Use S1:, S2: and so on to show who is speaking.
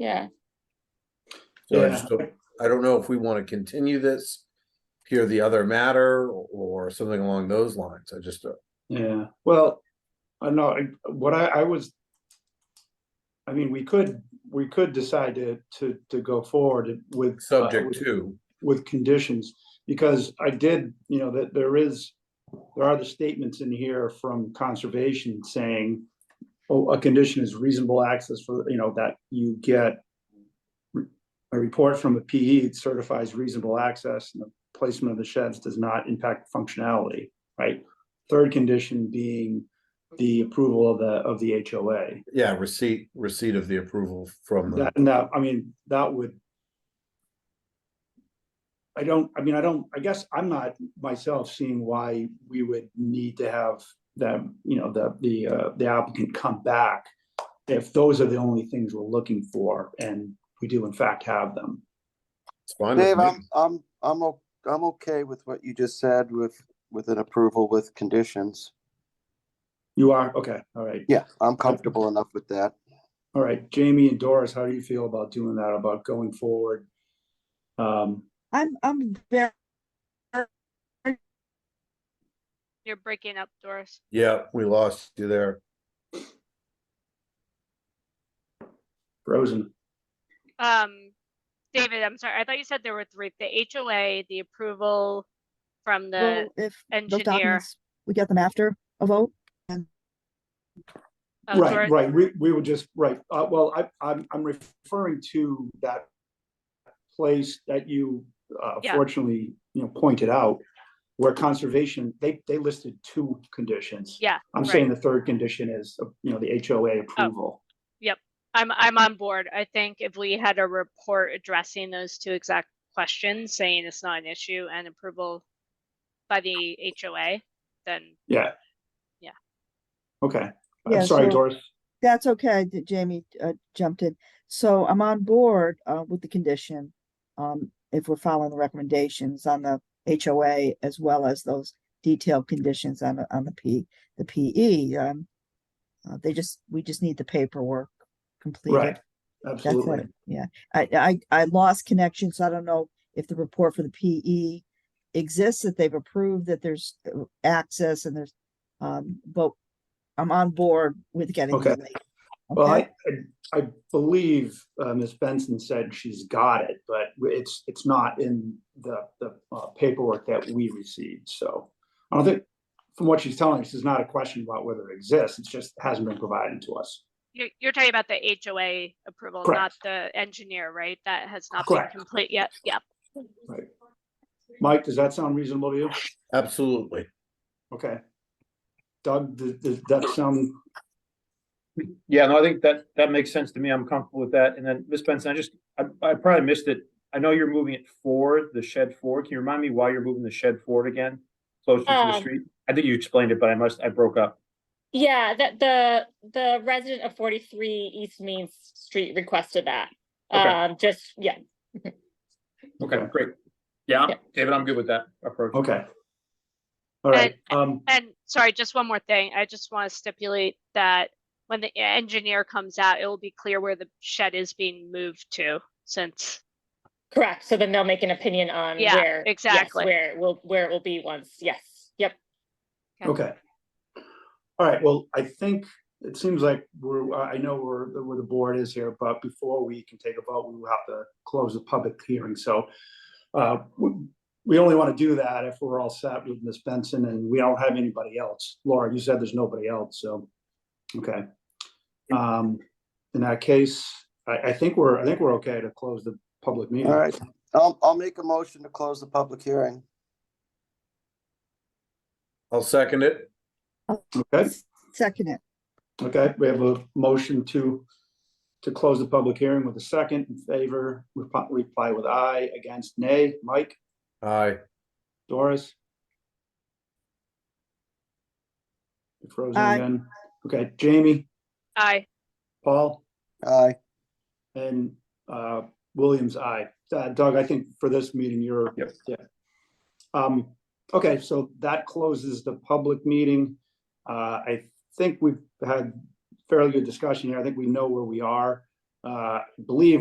S1: Yeah,
S2: So I
S3: Yeah.
S2: just don't- I don't know if we want to continue this, hear the other matter or something along those lines. I just, uh,
S3: Yeah, well, I know, I- what I, I was. I mean, we could, we could decide to, to, to go forward with. uh,
S2: subject
S3: with-
S2: to,
S3: With conditions, because I did, you know, that there is, there are the statements in here from conservation saying. Oh, a condition is reasonable access for, you know, that you get. re- A report from a PE certifies reasonable access and the placement of the sheds does not impact functionality, right? Third condition being the approval of the, of the HOA.
S2: yeah, receipt, receipt of the approval from the,
S3: That, and that, I mean, that would. I don't, I mean, I don't, I guess I'm not myself seeing why we would need to have them, you know, the, the, uh, the applicant come back. If those are the only things we're looking for and we do in fact have them.
S2: it's fine with
S4: Dave,
S2: me.
S4: I'm, I'm, I'm, o- I'm okay with what you just said with, with an approval with conditions.
S3: You are, okay, all right,
S4: Yeah, I'm comfortable enough with that.
S3: all right. Jamie and Doris, how do you feel about doing that, about going forward? Um,
S5: I'm, I'm very,
S6: You're breaking up, Doris.
S2: Yeah, we lost you there.
S3: frozen,
S6: Um, David, I'm sorry, I thought you said there were three, the HOA, the approval from the,
S5: well, if those
S6: engineer.
S5: documents, we get them after a vote.
S6: oh,
S3: right,
S6: Doris-
S3: right, we, we were just, right, uh, well, I, I'm, I'm referring to that place that you, uh,
S6: Yeah.
S3: fortunately, you know, pointed out, where conservation, they, they listed two conditions.
S6: Yeah, Oh.
S3: I'm saying the third condition is, uh, you know, the HOA approval.
S6: I'm, I'm on board. I think if we had a report addressing those two exact questions, saying it's not an issue and approval by the HOA, then
S3: Yeah.
S6: Yeah.
S3: Okay,
S5: Yeah,
S3: I'm sorry,
S5: so-
S3: Doris,
S5: That's okay, that Jamie uh, jumped in. So I'm on board uh, with the condition. Um, if we're following the recommendations on the HOA as well as those detailed conditions on, the on the P, the PE. um, uh, They just, we just need the paperwork completed.
S3: right,
S5: That's
S3: absolutely,
S5: it, yeah. I, I, I lost connection, so I don't know if the report for the PE exists, that they've approved that there's uh, access and there's, um, but I'm on board with getting
S3: Okay.
S5: the link.
S3: well,
S5: Okay,
S3: I, I- I believe, uh, Ms. Benson said she's got it, but it's, it's not in the, the uh, paperwork that we received, so. I don't think, from what she's telling us, it's not a question about whether it exists, it's just hasn't been provided to us.
S6: you're, you're talking about the HOA approval, not
S3: Correct.
S6: the engineer, right? That has not been
S3: Correct.
S6: complete yet. Yeah.
S3: Mike, does that sound reasonable to you?
S2: Absolutely.
S3: Okay. Doug, does, does that sound,
S7: Yeah, no, I think that, that makes sense to me. I'm comfortable with that. And then, Ms. Benson, I just, I, I probably missed it. I know you're moving it forward, the shed forward. Can you remind me why you're moving the shed forward again? Closer to the
S1: Um,
S7: street? I think you explained it, but I must, I broke up.
S1: yeah, that the, the resident of forty-three East Main Street requested that.
S7: Okay.
S1: Um, just, yeah,
S7: Okay, great. Yeah,
S1: Yeah.
S7: I'm- David, I'm good with that approach.
S3: okay. All right, um,
S6: And sorry, just one more thing. I just want to stipulate that when the engineer comes out, it will be clear where the shed is being moved to since,
S1: correct. So then they'll make an opinion on
S6: Yeah,
S1: where. yes,
S6: exactly.
S1: Where it will, where it will be once, yes, yep.
S3: Okay. All right, well, I think it seems like we're, uh, I I know where, where the board is here, but before we can take a vote, we will have to close the public hearing, so. Uh, we, we only want to do that if we're all set with Ms. Benson and we don't have anybody else. Laura, you said there's nobody else, so, okay. Um, in that case, I, I think we're, I think we're okay to close the public meeting.
S4: All right, I'll, Um, I'll make a motion to close the public hearing.
S2: I'll second it.
S3: Okay?
S5: second it.
S3: Okay, we have a motion to, to close the public hearing with a second in favor, repo- reply with aye, against nay. Mike,
S2: Aye.
S3: Doris? You're Frozen
S5: Aye.
S3: again. Okay, Jamie,
S6: I,
S3: Paul,
S4: Aye,
S3: and uh, Williams, aye. Uh, Doug, I think for this meeting, you're.
S7: Yep.
S3: Yeah. Um, okay, so that closes the public meeting. Uh, I think we've had fairly good discussion here. I think we know where we are. uh, I believe